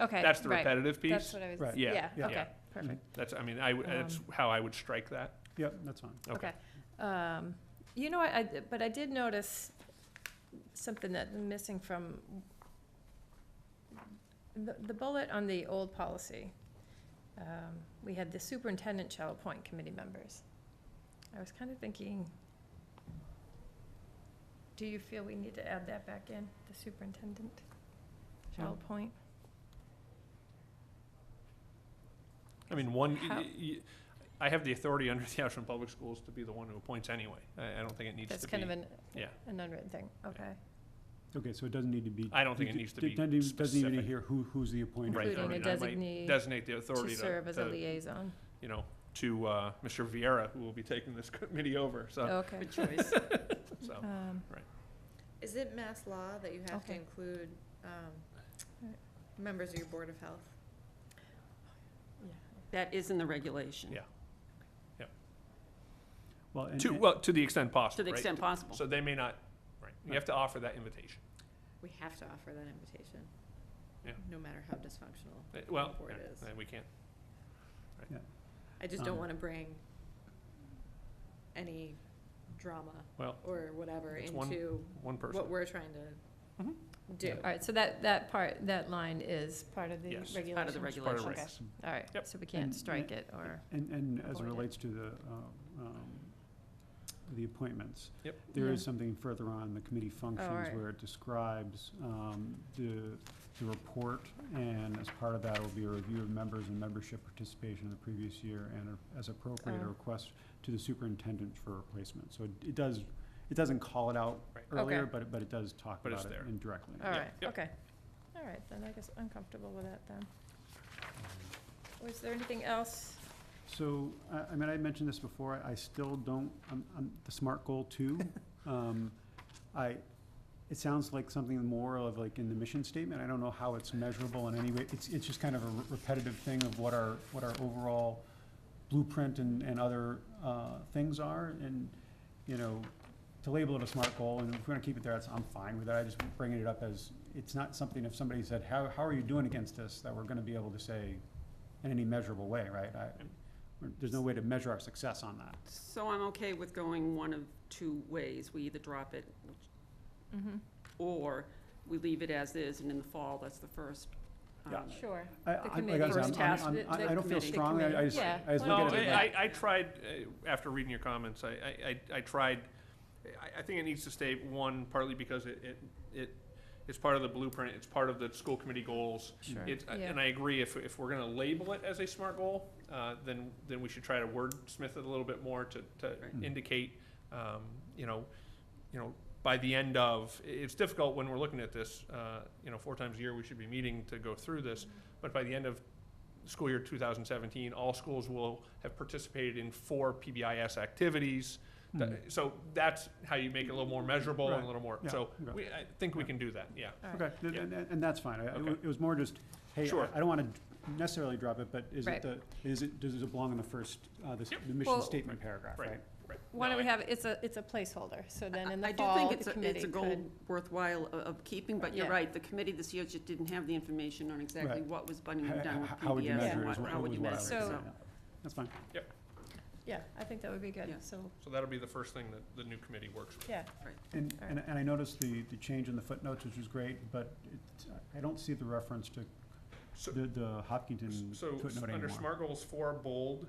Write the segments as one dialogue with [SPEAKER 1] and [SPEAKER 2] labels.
[SPEAKER 1] Okay,
[SPEAKER 2] That's the
[SPEAKER 1] right.
[SPEAKER 2] repetitive piece.
[SPEAKER 1] That's what um, I was,
[SPEAKER 3] Right.
[SPEAKER 2] Yeah,
[SPEAKER 1] yeah,
[SPEAKER 2] yeah.
[SPEAKER 1] okay, perfect,
[SPEAKER 2] That's, I mean, I, would- that's how I would strike that.
[SPEAKER 3] Yep, that's fine.
[SPEAKER 2] Okay.
[SPEAKER 1] okay. Um, You know, I, I- but I did notice something that missing from the, the bullet on the old policy. Um, We had the superintendent shall appoint committee members. I was kind of thinking, do you feel we need to add that back in, the superintendent shall
[SPEAKER 2] Um,
[SPEAKER 1] appoint?
[SPEAKER 2] I mean, one,
[SPEAKER 1] How-
[SPEAKER 2] y- y- I have the authority under the Ashland Public Schools to be the one who appoints anyway. I, I don't think it needs to be.
[SPEAKER 1] That's kind of an,
[SPEAKER 2] yeah.
[SPEAKER 1] an unwritten thing, okay.
[SPEAKER 3] Okay, so it doesn't need to be.
[SPEAKER 2] I don't think it needs to be
[SPEAKER 3] Doesn't even- Doesn't even
[SPEAKER 2] specific.
[SPEAKER 3] hear who, who's the appointer.
[SPEAKER 2] Right, I
[SPEAKER 1] Including a
[SPEAKER 2] mean, I might
[SPEAKER 1] designee
[SPEAKER 2] Designate the
[SPEAKER 1] To
[SPEAKER 2] authority to,
[SPEAKER 1] serve as a
[SPEAKER 2] to,
[SPEAKER 1] liaison,
[SPEAKER 2] you know, to, uh, Mr. Vieira, who will be taking this committee over, so,
[SPEAKER 1] Oh, okay.
[SPEAKER 4] choice.
[SPEAKER 2] Uh, so.
[SPEAKER 1] Um,
[SPEAKER 4] Is it mass law that you have to
[SPEAKER 1] Okay.
[SPEAKER 4] include, um,
[SPEAKER 1] Right.
[SPEAKER 4] members of your Board of Health?
[SPEAKER 5] That is in the regulation.
[SPEAKER 2] Yeah.
[SPEAKER 3] Well, and-
[SPEAKER 2] To,
[SPEAKER 3] and-
[SPEAKER 2] well, to the extent
[SPEAKER 5] To
[SPEAKER 2] possible,
[SPEAKER 5] the
[SPEAKER 2] right?
[SPEAKER 5] extent possible.
[SPEAKER 2] So they may not, right, you have to offer that invitation.
[SPEAKER 4] We have to offer that invitation.
[SPEAKER 2] Yeah.
[SPEAKER 4] No matter how dysfunctional.
[SPEAKER 2] Uh, Well,
[SPEAKER 4] Or it
[SPEAKER 2] yeah,
[SPEAKER 4] is.
[SPEAKER 2] uh, we can't,
[SPEAKER 4] I just don't
[SPEAKER 3] Um,
[SPEAKER 4] wanna bring any drama
[SPEAKER 2] well,
[SPEAKER 4] or whatever
[SPEAKER 2] It's one
[SPEAKER 4] into
[SPEAKER 2] one person.
[SPEAKER 4] what we're trying to
[SPEAKER 2] Mhm.
[SPEAKER 4] do.
[SPEAKER 1] All right, so that, that part, that line is Mm-hmm. part of the
[SPEAKER 2] Yes. It's
[SPEAKER 1] regulation?
[SPEAKER 5] Part of the
[SPEAKER 2] It's part of
[SPEAKER 5] regulations.
[SPEAKER 1] Okay.
[SPEAKER 2] regs.
[SPEAKER 1] All right,
[SPEAKER 2] Yep.
[SPEAKER 1] so we can't
[SPEAKER 3] And-
[SPEAKER 1] strike it or,
[SPEAKER 3] And, and as it
[SPEAKER 1] Avoid it.
[SPEAKER 3] relates to the, uh, um, the appointments.
[SPEAKER 2] Yep.
[SPEAKER 3] There is
[SPEAKER 1] Yeah. Oh,
[SPEAKER 3] something further on the committee functions
[SPEAKER 1] right.
[SPEAKER 3] where it describes, um, the, the report. And as part of that will be a review of members and membership participation in the previous year and a- as appropriate, a
[SPEAKER 1] Oh.
[SPEAKER 3] request to the superintendent for replacement. So it- it does, it doesn't call it out
[SPEAKER 2] Right.
[SPEAKER 1] Okay.
[SPEAKER 3] earlier, but, it- but it does talk
[SPEAKER 2] But it's
[SPEAKER 3] about it
[SPEAKER 2] there.
[SPEAKER 3] indirectly.
[SPEAKER 1] all
[SPEAKER 2] Yeah,
[SPEAKER 1] right,
[SPEAKER 2] yep.
[SPEAKER 1] okay. All right, then I guess I'm comfortable with that then. Was there anything else?
[SPEAKER 3] So, I, I mean, I mentioned this before, I still don't, I'm, I'm the SMART goal two. Um, I, it sounds like something more of like in the mission statement, I don't know how it's measurable in any way. It's, it's just kind of a re- repetitive thing of what our, what our overall blueprint and, and other, uh, things are. And, you know, to label it a SMART goal, and if we're gonna keep it there, that's, I'm fine with that, I just bringing it up as, it's not something if somebody said, how, how are you doing against this, that we're gonna be able to say in any measurable way, right? I, we're- There's no way to measure our success on that.
[SPEAKER 5] So I'm okay with going one of two ways. We either drop it, which-
[SPEAKER 1] Mhm.
[SPEAKER 5] or we leave it as is, and in the fall, that's the first. um,
[SPEAKER 3] Yeah.
[SPEAKER 1] Sure.
[SPEAKER 3] I- I-
[SPEAKER 1] The
[SPEAKER 3] like I
[SPEAKER 1] committee.
[SPEAKER 3] said, I'm-
[SPEAKER 5] First task,
[SPEAKER 3] I'm-
[SPEAKER 5] the-
[SPEAKER 3] I
[SPEAKER 5] the
[SPEAKER 3] I don't feel
[SPEAKER 5] committee.
[SPEAKER 3] strongly, I I just,
[SPEAKER 1] Yeah.
[SPEAKER 3] I just
[SPEAKER 2] No,
[SPEAKER 3] look at it.
[SPEAKER 2] I,
[SPEAKER 3] like-
[SPEAKER 2] I I tried, uh, after reading your comments, I, I, I I tried, I, I think it needs to stay, one, partly because it, it, it, it's part of the blueprint, it's part of the school committee goals.
[SPEAKER 1] Sure.
[SPEAKER 2] It's, uh,
[SPEAKER 1] Yeah.
[SPEAKER 2] and I agree, if, if we're gonna label it as a SMART goal, uh, then, then we should try to wordsmith it a little bit more to, to
[SPEAKER 5] Right.
[SPEAKER 2] indicate, um, you know, you know, by the end of, i- it's difficult when we're looking at this, uh, you know, four times a year, we should be meeting to go through this. But by the end of school year 2017, all schools will have participated in four PBIS activities. Th-
[SPEAKER 3] Mm.
[SPEAKER 2] So that's how you make it a little more measurable and
[SPEAKER 3] Right.
[SPEAKER 2] a little more,
[SPEAKER 3] Yeah.
[SPEAKER 2] so
[SPEAKER 3] Yeah.
[SPEAKER 2] we, I think we can do that, yeah.
[SPEAKER 1] All right.
[SPEAKER 3] Okay, th-
[SPEAKER 2] Yeah.
[SPEAKER 3] and, and and that's fine. I- I-
[SPEAKER 2] Okay.
[SPEAKER 3] It was more just, hey,
[SPEAKER 2] Sure.
[SPEAKER 3] I- I don't want to necessarily drop it, but is
[SPEAKER 1] Right.
[SPEAKER 3] it the, is it, does it belong in the first, uh, the s-
[SPEAKER 2] Yep.
[SPEAKER 3] the mission
[SPEAKER 1] Well-
[SPEAKER 3] statement paragraph,
[SPEAKER 2] Right.
[SPEAKER 3] right?
[SPEAKER 2] Right.
[SPEAKER 1] Why don't
[SPEAKER 2] No,
[SPEAKER 1] we
[SPEAKER 2] I-
[SPEAKER 1] have, it's a, it's a placeholder, so then in
[SPEAKER 5] I-
[SPEAKER 1] the fall, the
[SPEAKER 5] I do think it's, a-
[SPEAKER 1] committee
[SPEAKER 5] it's a goal
[SPEAKER 1] could.
[SPEAKER 5] worthwhile o- of keeping, but you're
[SPEAKER 1] Yeah.
[SPEAKER 5] right, the committee this year just didn't have the information on exactly
[SPEAKER 3] Right.
[SPEAKER 5] what was being
[SPEAKER 3] H-
[SPEAKER 5] Mm-hmm. done with
[SPEAKER 3] h- How would you
[SPEAKER 5] PBS
[SPEAKER 3] measure
[SPEAKER 5] and
[SPEAKER 3] it
[SPEAKER 5] what,
[SPEAKER 3] is what-
[SPEAKER 5] how would
[SPEAKER 3] was
[SPEAKER 5] you
[SPEAKER 3] what I
[SPEAKER 5] measure it,
[SPEAKER 3] was-
[SPEAKER 1] So-
[SPEAKER 5] so.
[SPEAKER 3] yeah. That's fine.
[SPEAKER 1] Yeah, I think that would be good,
[SPEAKER 5] Yeah.
[SPEAKER 1] so,
[SPEAKER 2] So that'll be the first thing that the new committee works with.
[SPEAKER 1] yeah,
[SPEAKER 3] And,
[SPEAKER 1] All
[SPEAKER 3] and, and I noticed the, the change in the footnotes, which was great, but it, I don't see the reference to
[SPEAKER 2] So-
[SPEAKER 3] the, the Hopkinton
[SPEAKER 2] So, s-
[SPEAKER 3] footnote
[SPEAKER 2] under
[SPEAKER 3] anymore.
[SPEAKER 2] SMART goals four, bold,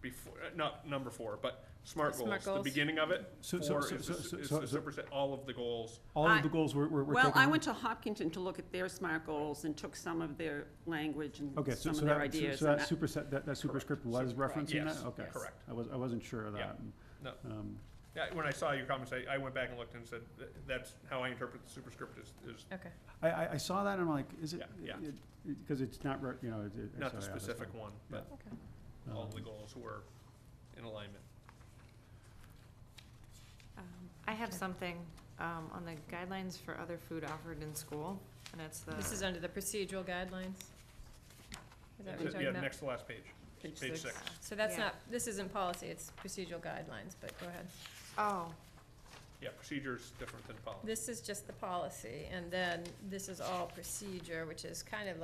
[SPEAKER 2] before, not number four, but SMART
[SPEAKER 1] Smart
[SPEAKER 2] goals, the
[SPEAKER 1] goals.
[SPEAKER 2] beginning of it,
[SPEAKER 3] So- so-
[SPEAKER 2] four
[SPEAKER 3] so-
[SPEAKER 2] is
[SPEAKER 3] so-
[SPEAKER 2] the,
[SPEAKER 3] so-
[SPEAKER 2] is
[SPEAKER 3] so-
[SPEAKER 2] the
[SPEAKER 3] so-
[SPEAKER 2] superset, all of the goals.
[SPEAKER 3] All of
[SPEAKER 5] I-
[SPEAKER 3] the goals were, were were taken.
[SPEAKER 5] Well, I went to Hopkinton to look at their SMART goals and took some of their language and
[SPEAKER 3] Okay, so,
[SPEAKER 5] some of
[SPEAKER 3] so
[SPEAKER 5] their
[SPEAKER 3] that, so-
[SPEAKER 5] ideas.
[SPEAKER 3] so
[SPEAKER 5] and
[SPEAKER 3] that
[SPEAKER 5] I-
[SPEAKER 3] superset, that, that superscript was referencing that?
[SPEAKER 2] Yes,
[SPEAKER 3] Okay.
[SPEAKER 2] yes. Correct.
[SPEAKER 3] I was, I wasn't sure of
[SPEAKER 2] Yeah.
[SPEAKER 3] that.
[SPEAKER 2] No.
[SPEAKER 3] Um,
[SPEAKER 2] Yeah, when I saw your comments, I, I went back and looked and said, "Th- that's how I interpret the superscript is, is
[SPEAKER 1] okay.
[SPEAKER 3] I, I, I saw that and I'm like, is it?
[SPEAKER 2] Yeah, yeah.
[SPEAKER 3] Because it's not, re- you know, it- it. I
[SPEAKER 2] not
[SPEAKER 3] saw
[SPEAKER 2] the
[SPEAKER 3] it, I was
[SPEAKER 2] specific
[SPEAKER 3] like,
[SPEAKER 2] one, but
[SPEAKER 3] um,
[SPEAKER 2] all of the goals were in alignment.
[SPEAKER 6] I have
[SPEAKER 1] Okay.
[SPEAKER 6] something um, on the guidelines for other food offered in school, and it's the.
[SPEAKER 1] This is under the procedural guidelines? Is that what you're talking
[SPEAKER 2] Yeah,
[SPEAKER 1] about?
[SPEAKER 2] next to last page,
[SPEAKER 5] Page
[SPEAKER 2] page
[SPEAKER 5] six.
[SPEAKER 2] six.
[SPEAKER 1] So that's
[SPEAKER 6] Yeah.
[SPEAKER 1] not, this isn't policy, it's procedural guidelines, but go ahead.
[SPEAKER 6] Oh,
[SPEAKER 2] Yeah, procedure's different than policy.
[SPEAKER 1] This is just the policy, and then this is all procedure, which is kind of